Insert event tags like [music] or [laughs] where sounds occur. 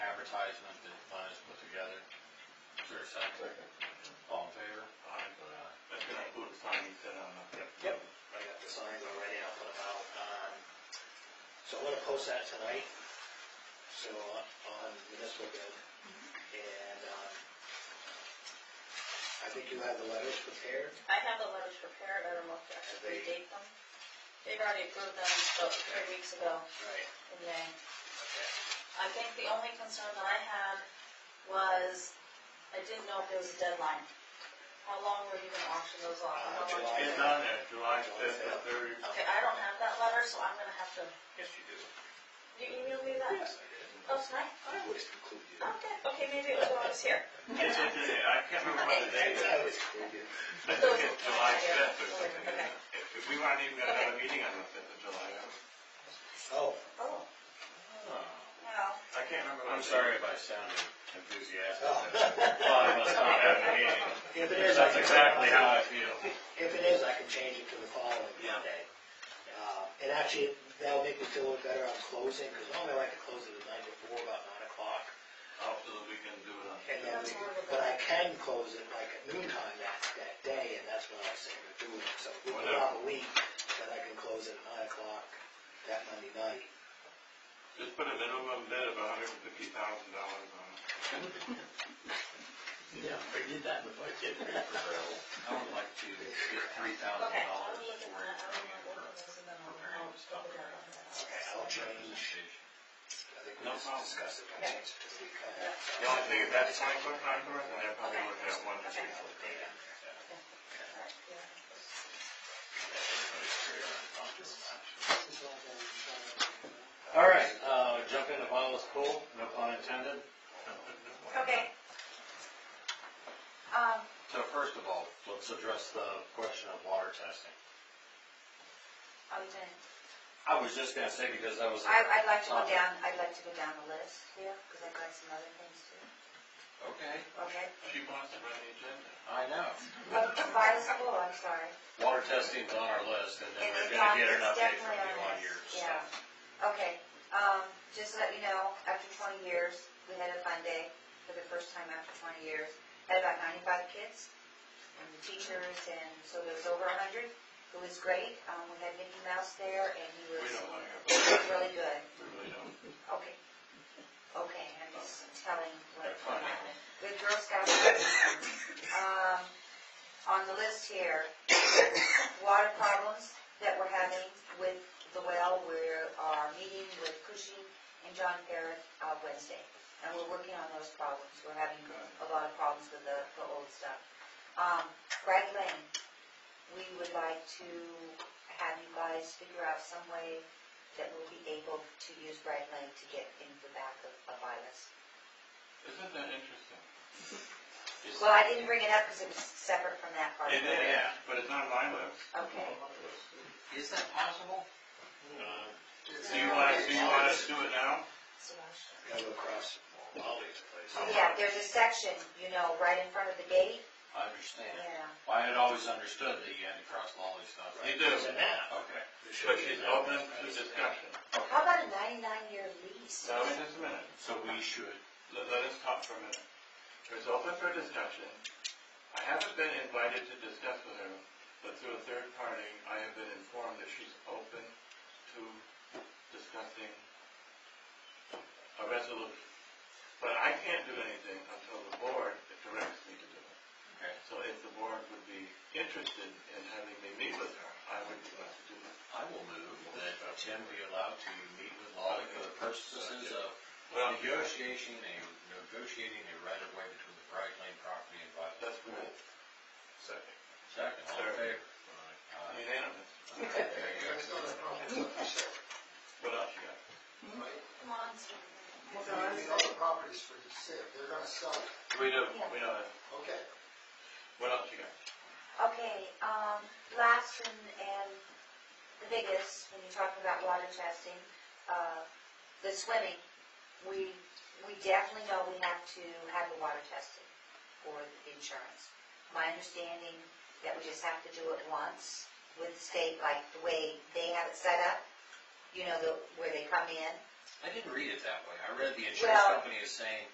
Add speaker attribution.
Speaker 1: advertisement that Glenn has put together. Is there a second? All in favor? Aye.
Speaker 2: That's gonna include the sign you said on the.
Speaker 3: Yep, I got the signs already, I'll put them out, um, so I'm gonna post that tonight, so, uh, on municipal bid, and, um, I think you have the letters prepared,
Speaker 4: I have the letters prepared, I don't know if I should redate them. They've already approved them about three weeks ago
Speaker 3: right,
Speaker 4: in May.
Speaker 3: okay,
Speaker 4: I think the only concern that I had was, I didn't know if there was a deadline. How long were you gonna auction those off?
Speaker 3: Uh,
Speaker 4: How long-
Speaker 3: July.
Speaker 2: It's on there, July fifth to thirty.
Speaker 4: Okay, I don't have that letter, so I'm gonna have to,
Speaker 3: yes, you do.
Speaker 4: you emailed me that?
Speaker 3: I did.
Speaker 4: Oh, tonight?
Speaker 3: I always include you.
Speaker 4: Okay, okay, maybe it was when I was here.
Speaker 2: It's in there, I can't remember what the date
Speaker 3: I
Speaker 2: is.
Speaker 3: always include you.
Speaker 2: I think it's July fifth or something. If- If we want to even have another meeting on the fifth of July, I
Speaker 3: Oh,
Speaker 4: Oh,
Speaker 1: Oh,
Speaker 4: well,
Speaker 2: I can't remember. what
Speaker 1: I'm
Speaker 2: the-
Speaker 1: sorry if I sounded enthusiastic.
Speaker 3: oh.
Speaker 1: Well, I must not have a meeting.
Speaker 3: If [laughs] it is, I
Speaker 1: That's
Speaker 3: can.
Speaker 1: exactly how I feel.
Speaker 3: If it is, I can change it to the following
Speaker 1: Yeah.
Speaker 3: Monday. Uh, And actually, that'll make me feel a little better on closing, because normally I like to close it the night before, about nine o'clock.
Speaker 2: Oh, so that we can do it on.
Speaker 3: And then,
Speaker 4: That's horrible.
Speaker 3: but I can close it like at noon time that, that day, and that's when I was saying to do it. So if we put it on a week, then I can close it at nine o'clock that Monday night.
Speaker 2: Just put a minimum bid of hundred and fifty thousand dollars on it.
Speaker 3: Yeah, we did that
Speaker 1: [laughs]
Speaker 3: in the budget.
Speaker 1: I would like to get three thousand
Speaker 4: okay,
Speaker 3: Oh.
Speaker 1: dollars
Speaker 4: I'm looking
Speaker 1: for
Speaker 4: at, I don't
Speaker 1: training
Speaker 4: remember
Speaker 1: for
Speaker 4: what it was, and then I'll, I'll
Speaker 1: preparing stuff.
Speaker 4: look at it.
Speaker 3: Okay, I'll change, I think we
Speaker 1: No
Speaker 3: just
Speaker 1: problem.
Speaker 3: discussed it, I'll
Speaker 4: Yeah.
Speaker 3: change it to the week. of that.
Speaker 2: The only thing, if that's twenty-foot contours, then I probably would have one.
Speaker 3: I'll change all the data.
Speaker 4: Alright, yeah.
Speaker 1: All right, uh, jump into Viola's pool, no pun intended.
Speaker 4: Okay. Um,
Speaker 1: So first of all, let's address the question of water testing.
Speaker 4: I was in,
Speaker 1: I was just gonna say, because that was. a-
Speaker 4: I, I'd like to go down, I'd like to go down the list here, because I've got some other things too,
Speaker 1: Okay,
Speaker 4: okay?
Speaker 2: She wants to run the agenda.
Speaker 1: I know.
Speaker 4: But Vital School, I'm sorry.
Speaker 1: Water testing's on our list, and then
Speaker 4: It- it's
Speaker 1: we're
Speaker 4: on-
Speaker 1: gonna get an
Speaker 4: it's
Speaker 1: update from
Speaker 4: definitely on
Speaker 1: you on
Speaker 4: this,
Speaker 1: your
Speaker 4: yeah.
Speaker 1: stuff.
Speaker 4: Okay, um, just to let you know, after twenty years, we had a fun day for the first time after twenty years. Had about ninety-five kids and the teachers and so there was over a hundred. It was great. Um, we had Mickey Mouse there and he
Speaker 2: We
Speaker 4: was
Speaker 2: don't want to have,
Speaker 4: really good.
Speaker 2: we really don't.
Speaker 4: Okay. Okay, I'm just telling what
Speaker 2: That's fine.
Speaker 4: happened. With Girl Scouts, um, on the list here, water problems that we're having with the well, we are meeting with Cushing and John Barrett uh, Wednesday. And we're working on those problems. We're having a lot of problems with the, the old stuff. Um, Bragg Lane, we would like to have you guys figure out some way that we'll be able to use Bragg Lane to get in the back of, of Iris.
Speaker 2: Isn't that interesting?
Speaker 1: Is-
Speaker 4: Well, I didn't bring it up because it was separate from that part.
Speaker 2: It is, but it's on my list.
Speaker 4: Okay.
Speaker 1: Is that possible? Uh,
Speaker 2: Do you want, do you want us to do it now?
Speaker 3: Gotta go across Wally's place.
Speaker 4: Yeah, there's a section, you know, right in front of the gate,
Speaker 1: I understand.
Speaker 4: yeah.
Speaker 1: I had always understood that you had to cross Lolly's stuff.
Speaker 2: You do.
Speaker 3: It's a nap.
Speaker 1: Okay,
Speaker 3: It should
Speaker 2: But
Speaker 3: be a
Speaker 2: she's
Speaker 3: nap.
Speaker 2: open to discussion.
Speaker 4: How about a ninety-nine year lease?
Speaker 2: Now, wait just a minute.
Speaker 1: so we should,
Speaker 2: Let, let us talk for a minute. It's open for discussion. I haven't been invited to discuss with her, but through a third party, I have been informed that she's open to discussing a resolution. But I can't do anything until the board directs me to do it.
Speaker 1: Okay.
Speaker 2: So if the board would be interested in having me meet with her, I would be glad to do that.
Speaker 1: I will move that Tim be allowed to meet with Lolly for the purposes of
Speaker 2: Well,
Speaker 1: negotiating a, negotiating a right of way between the Bright Lane property and Violet.
Speaker 2: that's good. Second.
Speaker 1: Second, all in favor? Aye.
Speaker 2: Unanimous.
Speaker 1: There you go. [laughs]
Speaker 2: What else you got?
Speaker 4: Come on, Steve.
Speaker 5: Well, there are any other properties for sale, they're gonna sell it,
Speaker 2: We do, we know that.
Speaker 5: okay.
Speaker 2: What else you got?
Speaker 4: Okay, um, last and, and the biggest, when you talk about water testing, uh, the swimming, we, we definitely know we have to have the water tested for the insurance. My understanding that we just have to do it once with the state, like the way they have it set up, you know, the, where they come in,
Speaker 1: I didn't read it that way. I read the insurance
Speaker 4: Well-
Speaker 1: company as saying,